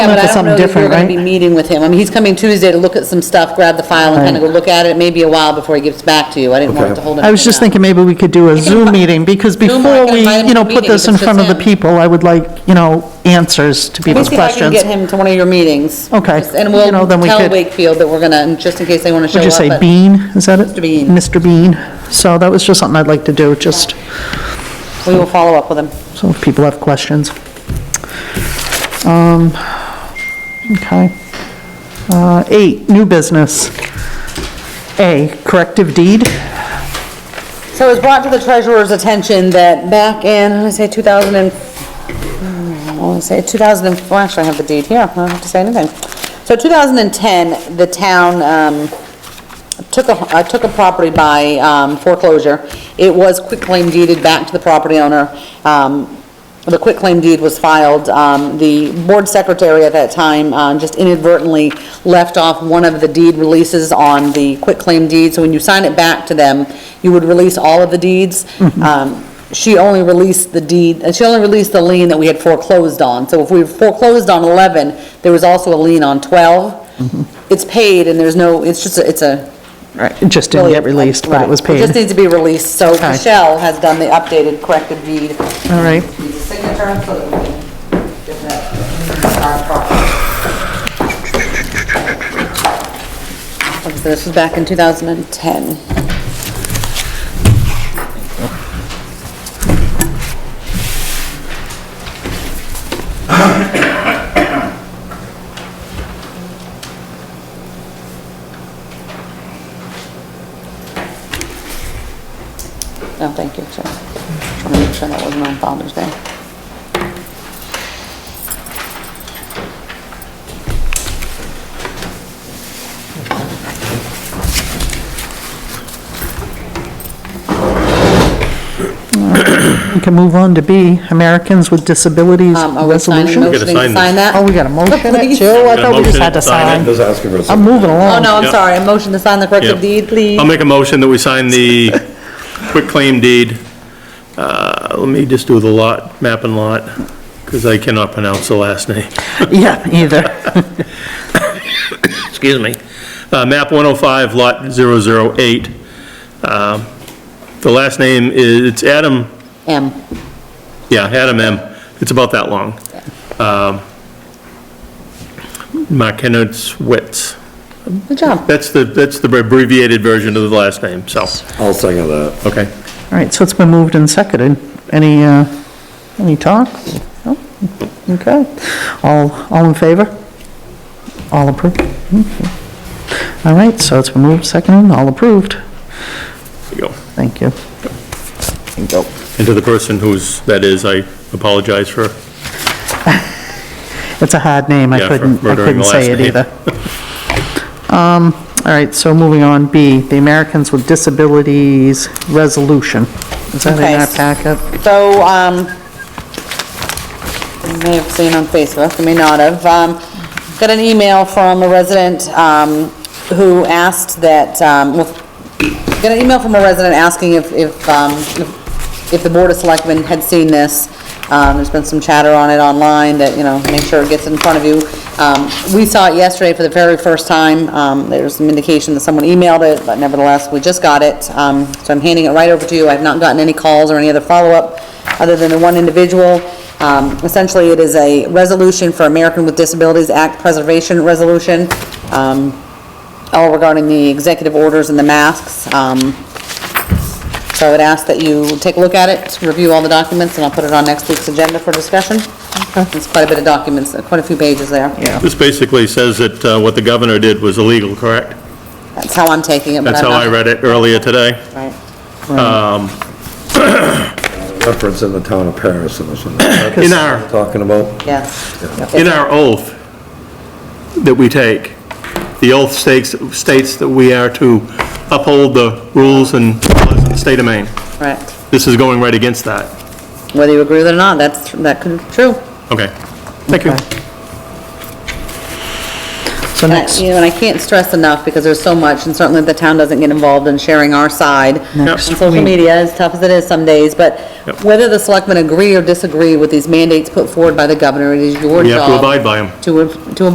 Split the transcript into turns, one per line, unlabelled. Yeah, but
Look
I
at
don't know
something
that you're
different,
going to be
right?
meeting with him. I mean, he's coming Tuesday to look at some stuff, grab the file and kind of go
Right.
look at it. It may be a while before he gets back to you. I didn't want it to hold him.
I was just thinking maybe we could do a Zoom meeting, because
Zoom, I
before
can
we,
invite him to
you know,
the
put
meeting,
this in
if it's
front of the
him.
people, I would like, you know, answers to
Let me
people's
see if I can
questions.
get him to one of your meetings.
Okay.
Just- And
You know,
we'll
then we
tell
could-
Wakefield that we're going to, just in case they want to show
Would
up.
you say
but-
Bean, is that it?
Mr. Bean.
Mr. Bean. So that was just something I'd like to do, just
We will follow up with him.
so if people have questions. Um, Okay. Uh, Eight, new business. A, corrective deed.
So it was brought to the treasurer's attention that back in, I say 2000 and, I want to say 2000, and- well, actually, I have the deed here, I don't have to say anything. So 2010, the town um, took a, uh, took a property by um, foreclosure. It was quitclaim deeded back to the property owner. Um, The quitclaim deed was filed. Um, The board secretary at that time um, just inadvertently left off one of the deed releases on the quitclaim deed. So when you sign it back to them, you would release all of the deeds.
Mm-hmm.
Um, She only released the deed, uh, she only released the lien that we had foreclosed on. So if we foreclosed on 11, there was also a lien on 12.
Mm-hmm.
It's paid and there's no, it's just, a it's a,
It just didn't get
Really,
released, but it
right.
was
It just
paid.
needs to be released, so
Okay.
Michelle has done the updated corrected deed.
All right.
Needs a signature, so that we can give that our property. So This was back in 2010. No, Oh, thank you, sir. Just want to make sure that wasn't on Father's Day.
We can move on to B, Americans with Disabilities
Um, Are we signing,
Resolution.
motioning to
sign
sign that?
Oh, we got a motion it
Please.
too? I thought we just
motion
had to
it, sign
sign.
it.
Just asking for a
I'm
Um,
second.
moving
Oh,
along.
no, I'm
Yeah.
sorry, a motion to sign the corrected
Yeah. Um,
deed, please.
I'll make a motion that we sign the quick claim deed. Uh, Let me just do the lot, map and lot, because I cannot pronounce the last name.
Yeah, either.
Excuse me. Uh, Map 105, Lot 008. Um, The last name is, it's Adam,
M.
yeah, Adam M. It's about that long. Um, Markenitz Witz.
Good job.
That's the, that's the abbreviated version of the last name, so,
I'll second that.
okay.
All right, so it's been moved and seconded. Any, uh, any talk? No? Okay. All, all in favor? All approved? Okay. All right, so it's been moved, seconded, all approved.
There you go.
Thank you.
And to the person who's, that is, I apologize for,
It's a hard name, I
Yeah, for
couldn't, I
murdering
couldn't
the
say it
last name.
either. Um, all right, so moving on, B, the Americans with Disabilities Resolution. Is that
Okay.
in our packet?
So, um, you may have seen on Facebook, you may not have, um, got an email from a resident, um, who asked that, um, well, got an email from a resident asking if, if, um, if- if the Board of Selectmen had seen this. Um, there's been some chatter on it online that, you know, make sure it gets in front of you. Um, we saw it yesterday for the very first time. Um, there's some indication that someone emailed it, but nevertheless, we just got it. Um, so I'm handing it right over to you. I've not gotten any calls or any other follow-up other than the one individual. Um, essentially, it is a resolution for American with Disabilities Act Preservation Resolution. Um, all regarding the executive orders and the masks. Um, So I would ask that you take a look at it, review all the documents, and I'll put it on next week's agenda for discussion. It's quite a bit of documents, uh, quite a few pages there.
Yeah.
this basically says that uh, what the governor did was illegal, correct?
That's how I'm taking it, but
That's
I'm
how
not...
I read it earlier today.
Right.
Reference in the town of Paris in this one.
In our-
Talking about.
Yes.
In our oath that we take, the oath states, states that we are to uphold the rules and laws of the state of Maine.
Correct.
This is going right against that.
Whether you agree with it or not, that's, that could be true.
Okay. Thank you.
Okay. So
And I-
next-
You know, and I can't stress enough, because there's so much, and certainly the town doesn't get involved in sharing our side on
Next
social
week.
media, as tough as it is some days, but
Yep.
whether the selectmen agree or disagree with these mandates put forward by the governor, it is your job
We have to abide by them.
to, to